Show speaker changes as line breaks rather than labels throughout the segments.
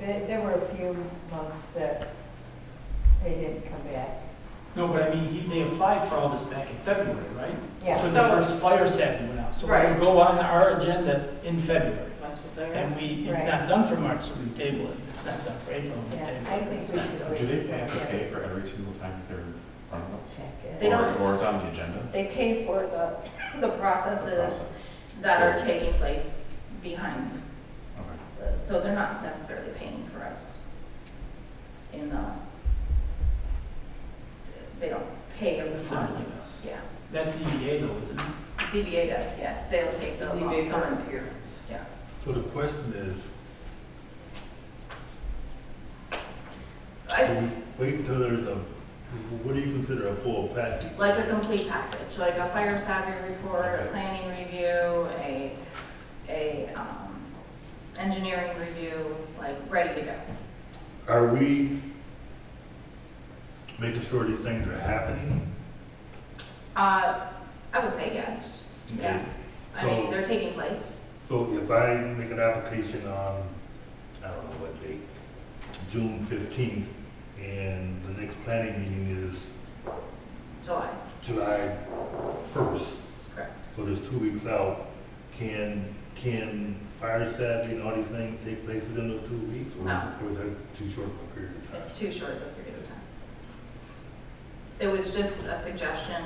There, there were a few monks that they didn't come back.
No, but I mean, he, they applied for all this back in February, right? That's
Yeah,
when
So-
the first fire satin went out. So
Right.
it'll go on our agenda in February.
That's what they're,
And we, it's
Right.
not done for March, so we table it. It's not done for April, we
yeah,
table
I
it.
think we should wait.
Do they have
until
to
February.
pay for every single time that they're in front of us?
Check it.
They don't-
Or- Or it's on the agenda?
they pay for the, the processes that are taking place behind.
Okay.
the- So they're not necessarily paying for us in the, they don't pay a
Assembly
refund.
us.
Yeah,
That's ZBA though, isn't it?
ZBA does, yes, they'll take the lump sum.
appearance.
Yeah.
So the question is, do
I-
we wait until there's a, what do you consider a full package?
Like a complete package, like a fire savvy report, a
Okay.
planning review, a, a, um, engineering review, like, ready to go.
Are we making sure these things are happening?
Uh, I would say yes, yeah. I mean,
So-
they're taking place.
So if I make an application on, I don't know what date, June fifteenth, and the next planning meeting is
July,
July first,
correct.
so there's two weeks out, can, can fire savvy and all these things take place within those two weeks? or is-
No.
Or is that too short of a period of time?
It's too short of a period of time. It was just a suggestion.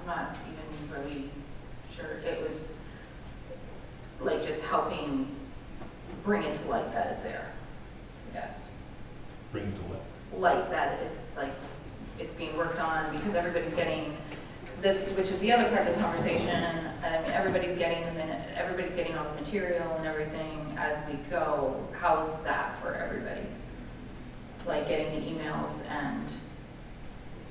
I'm not even really sure. It was like just helping bring it to light that it's there, I guess.
Bring it to what?
like that it's like, it's being worked on because everybody's getting this, which is the other part of the conversation. I mean, everybody's getting the minute, everybody's getting all the material and everything as we go. How's that for everybody? Like getting the emails and,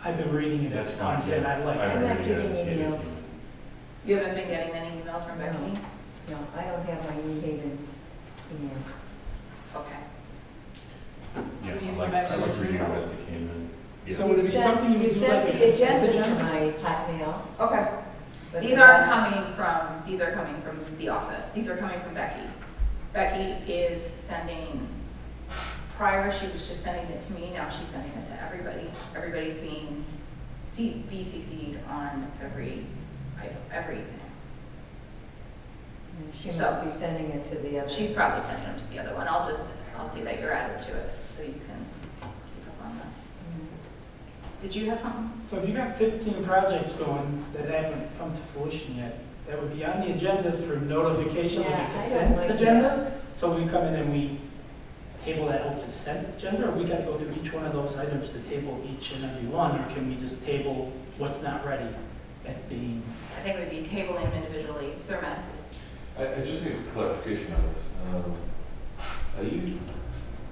I've been reading it as
That's fine,
content, I
yeah.
like it.
I
I'm not
agree, yeah,
getting
it's-
emails.
it's-
you haven't been getting any emails from Becky?
No, I don't have my New Haven email.
Okay.
Yeah,
Do you
I like,
remember
I like
the
reading them
email?
as they came in.
Yeah.
So would it be
sent-
something you
You
would do like
sent
a
the
consent
agenda to
agenda?
my hotmail.
Okay.
but
These
the
are
rest-
coming from, these are coming from the office. These are coming from Becky. Becky is sending, prior she was just sending it to me, now she's sending it to everybody. Everybody's being C- BCC'd on every, item, everything.
She
so-
must be sending it to the other.
She's probably sending them to the other one. I'll just, I'll see that you're added to it, so you can keep up on that.
Mm.
Did you have something?
So if you got 15 projects going that haven't come to fruition yet, that would be on the agenda for notification
Yeah, I
of
don't
the consent
like that.
agenda? So we come in and we table that whole consent agenda, or we gotta go through each one of those items to table each and every one? Or can we just table what's not ready as being,
I think we'd be tabling them individually. Sir Matt?
I, I just need clarification on this. Um, Are you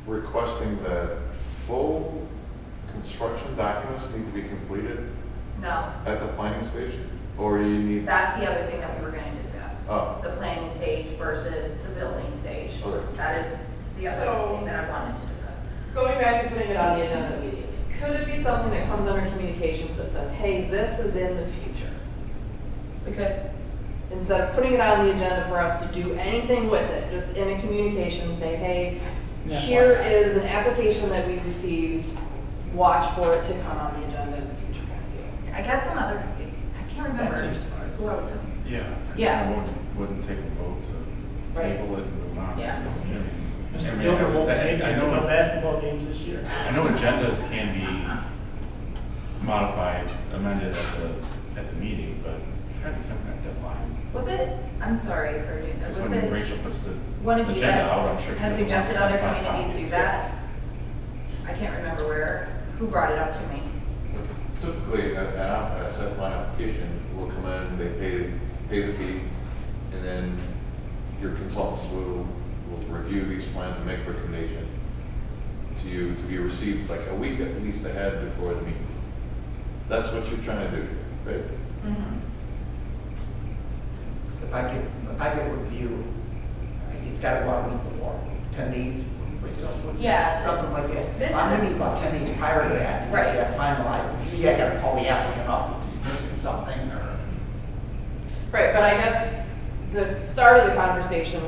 requesting that full construction documents need to be completed
No.
at the planning station? Or you need,
That's the other thing that we were gonna discuss.
Oh.
The planning stage versus the building stage.
Okay.
That is the other
So-
thing that I wanted to discuss.
Going back to putting it on the agenda immediately, could it be something that comes under communications that says, hey, this is in the future?
We could,
Instead of putting it on the agenda for us to do anything with it, just in a communication, say, hey,
Yeah.
here is an application that we received, watch for it to come on the agenda in the future kind of deal.
I guess some other, I can't
that
remember
seems smart.
who I was talking
Yeah. 'cause
Yeah.
I wouldn't, wouldn't take a vote to
Right.
table it and move on.
Yeah.
I
Mr.
mean,
Gilbert
I
won't
was-
be
I- I
able to
know-
go basketball games this year.
I know agendas can be modified, amended at the, at the meeting, but there's gotta be some kind of deadline.
about. Was it, I'm sorry for doing that,
Because
was
when
it
Rachel puts the
one of you
agenda out, I'm
that
sure she
had
doesn't want
suggested other
75
communities do
copies.
that? I can't remember where, who brought it up to me.
typically, a- an, app- a set plan application will come in, they pay, pay the fee, and then your consultants will, will review these plans and make recommendation to you to be received like a week at least ahead before the meeting. That's what you're trying to do, right?
If I get, if I get a review, it's gotta go out a week before, ten days, but don't-
Yeah.
Something like that.
This
I'm
is-
gonna need about ten days prior to that to
Right.
get that finalized. Maybe I gotta call the applicant up, if he's missing something or.
Right, but I guess the start of the conversation